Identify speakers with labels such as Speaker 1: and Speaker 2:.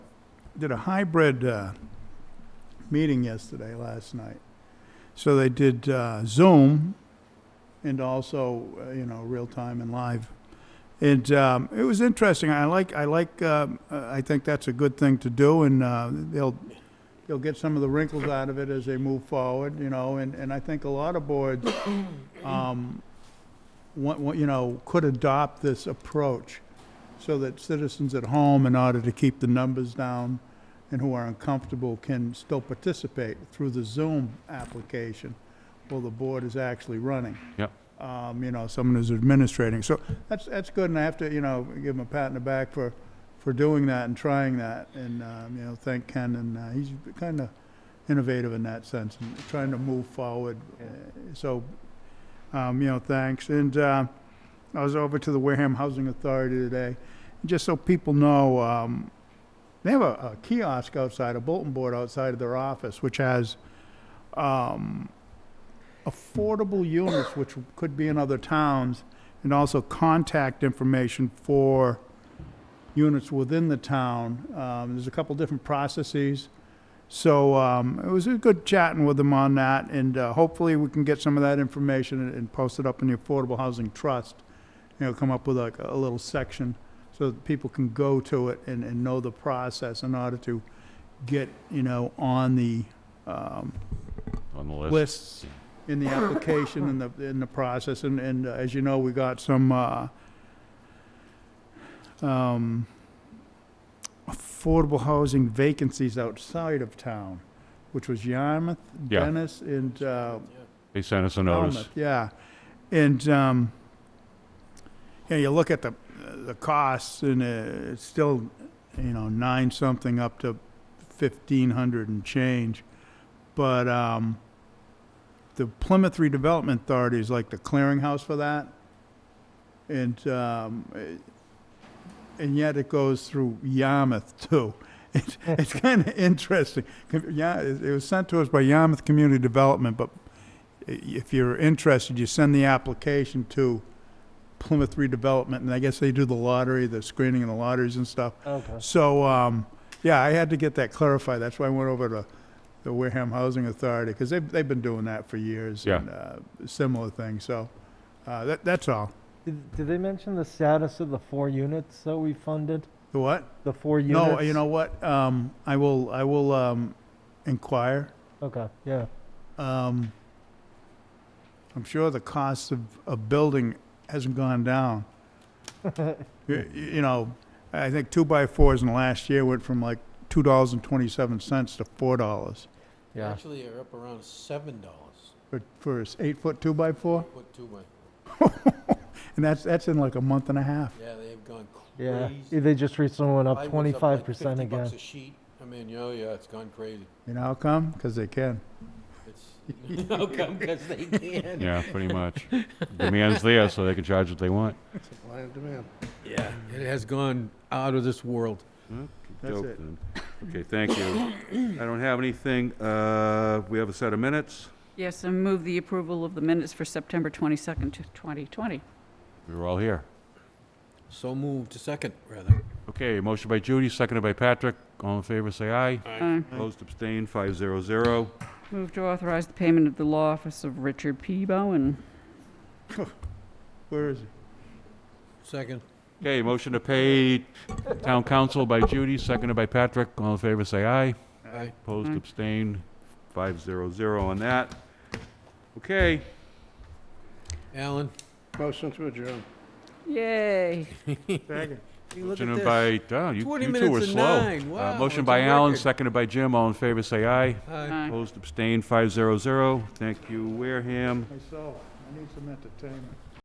Speaker 1: did a hybrid uh, meeting yesterday, last night. So they did uh, Zoom and also, uh, you know, real time and live. And um, it was interesting. I like, I like, um, uh, I think that's a good thing to do, and uh, they'll, they'll get some of the wrinkles out of it as they move forward, you know, and, and I think a lot of boards, um, want, want, you know, could adopt this approach so that citizens at home, in order to keep the numbers down and who are uncomfortable, can still participate through the Zoom application while the board is actually running.
Speaker 2: Yep.
Speaker 1: Um, you know, someone who's administrating. So that's, that's good, and I have to, you know, give him a pat on the back for, for doing that and trying that. And, um, you know, thank Ken, and uh, he's kind of innovative in that sense, and trying to move forward.
Speaker 3: Yeah.
Speaker 1: Uh, So, um, you know, thanks. And, uh, I was over to the Wareham Housing Authority today. Just so people know, um, they have a, a kiosk outside, a bulletin board outside of their office, which has um, affordable units, which could be in other towns, and also contact information for units within the town. Um, there's a couple different processes. So um, it was a good chatting with them on that, and uh, hopefully we can get some of that information and, and post it up in the Affordable Housing Trust. You know, come up with like a little section so that people can go to it and, and know the process in order to get, you know, on the um,
Speaker 2: on the list.
Speaker 1: lists in the application and the, in the process. And, and uh, as you know, we got some, uh, um, affordable housing vacancies outside of town, which was Yarmouth,
Speaker 2: Yeah.
Speaker 1: Dennis, and, uh,
Speaker 2: They sent us a notice.
Speaker 1: Falmouth, Yeah, and, um, you know, you look at the, the costs and uh, it's still, you know, nine something up to fifteen hundred and change. But, um, the Plymouth Redevelopment Authority is like the clearinghouse for that. And, um, eh, and yet it goes through Yarmouth too. It's, it's kind of interesting. Yeah, it it was sent to us by Yarmouth Community Development, but if you're interested, you send the application to Plymouth Redevelopment, and I guess they do the lottery, the screening and the lotteries and stuff.
Speaker 3: Okay.
Speaker 1: So, um, yeah, I had to get that clarified. That's why I went over to the Wareham Housing Authority, because they've, they've been doing that for years.
Speaker 2: Yeah.
Speaker 1: and, uh, Similar thing, so, uh, that, that's all.
Speaker 3: Did, did they mention the status of the four units that we funded?
Speaker 1: The what?
Speaker 3: The four units?
Speaker 1: No, you know what? Um, I will, I will, um, inquire.
Speaker 3: Okay, yeah.
Speaker 1: Um, I'm sure the cost of, of building hasn't gone down. You, you know, I think two by fours in the last year went from like two dollars and twenty-seven cents to four dollars.
Speaker 3: Yeah.
Speaker 4: Actually, you're up around seven dollars.
Speaker 1: For, for an eight-foot two by four,
Speaker 4: Put two way.
Speaker 1: and that's, that's in like a month and a half.
Speaker 4: Yeah, they have gone
Speaker 3: Yeah.
Speaker 4: crazy.
Speaker 3: They just recently went up
Speaker 4: Plywood's
Speaker 3: twenty-five
Speaker 4: like
Speaker 3: percent
Speaker 4: 50 bucks
Speaker 3: again.
Speaker 4: a sheet. I mean, you know, yeah, it's gone crazy.
Speaker 1: You know how come? Because they can.
Speaker 4: It's, how come, because they can.
Speaker 2: Yeah, pretty much. Demand's there, so they can charge what they want.
Speaker 5: Supply and demand.
Speaker 4: Yeah, it has gone out of this world.
Speaker 1: That's
Speaker 2: Dope,
Speaker 1: it.
Speaker 2: then. Okay, thank you. I don't have anything. Uh, we have a set of minutes.
Speaker 6: Yes, and move the approval of the minutes for September 22nd, to 2020.
Speaker 2: We were all here.
Speaker 4: So moved to second, rather.
Speaker 2: Okay, motion by Judy, seconded by Patrick. All in favor, say aye.
Speaker 6: Uh,
Speaker 2: Opposed, abstained, five zero zero.
Speaker 6: Move to authorize the payment of the law office of Richard P. Bowen.
Speaker 1: Where is he?
Speaker 4: Second.
Speaker 2: Okay, motion to pay town council by Judy, seconded by Patrick. All in favor, say aye.
Speaker 4: Aye.
Speaker 2: Opposed,
Speaker 6: Aye.
Speaker 2: abstained, five zero zero on that. Okay,
Speaker 4: Alan,
Speaker 5: Motion to adjourn.
Speaker 6: Yay!
Speaker 1: Second.
Speaker 4: you look at
Speaker 2: Motion
Speaker 4: this.
Speaker 2: by, oh, you
Speaker 4: 20
Speaker 2: you two
Speaker 4: minutes
Speaker 2: were
Speaker 4: to
Speaker 2: slow.
Speaker 4: nine.
Speaker 2: Uh,
Speaker 4: Wow,
Speaker 2: Motion
Speaker 4: it's
Speaker 2: by
Speaker 4: a
Speaker 2: Allen,
Speaker 4: record.
Speaker 2: seconded by Jim. All in favor, say aye.
Speaker 4: Aye.
Speaker 6: Aye.
Speaker 2: Opposed, abstained, 500. Thank you, Wareham.
Speaker 1: Myself, I need some entertainment.